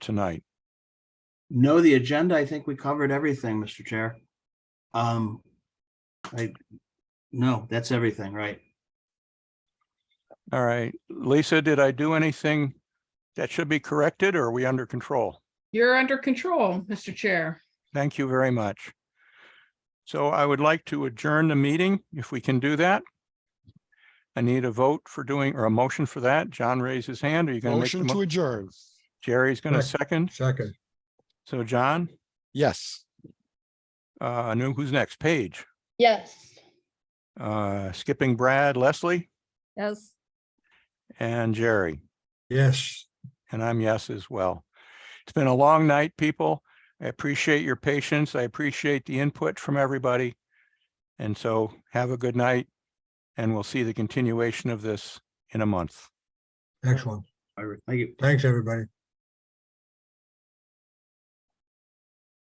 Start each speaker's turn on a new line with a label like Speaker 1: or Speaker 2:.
Speaker 1: tonight?
Speaker 2: No, the agenda, I think we covered everything, Mr. Chair. Um, I, no, that's everything, right?
Speaker 1: All right, Lisa, did I do anything that should be corrected or are we under control?
Speaker 3: You're under control, Mr. Chair.
Speaker 1: Thank you very much. So I would like to adjourn the meeting if we can do that. I need a vote for doing, or a motion for that. John raised his hand. Are you going to make? the
Speaker 4: Motion to
Speaker 1: mo-
Speaker 4: adjourn.
Speaker 1: Jerry's going to
Speaker 5: Correct.
Speaker 1: second.
Speaker 5: Second,
Speaker 1: So John,
Speaker 4: Yes.
Speaker 1: uh, I know who's next. Paige,
Speaker 6: Yes.
Speaker 1: uh, skipping Brad, Leslie
Speaker 6: Yes.
Speaker 1: and Jerry.
Speaker 5: yes.
Speaker 1: And I'm yes as well. It's been a long night, people. I appreciate your patience. I appreciate the input from everybody. And so have a good night and we'll see the continuation of this in a month.
Speaker 5: Excellent.
Speaker 2: I, I,
Speaker 5: Thanks, everybody.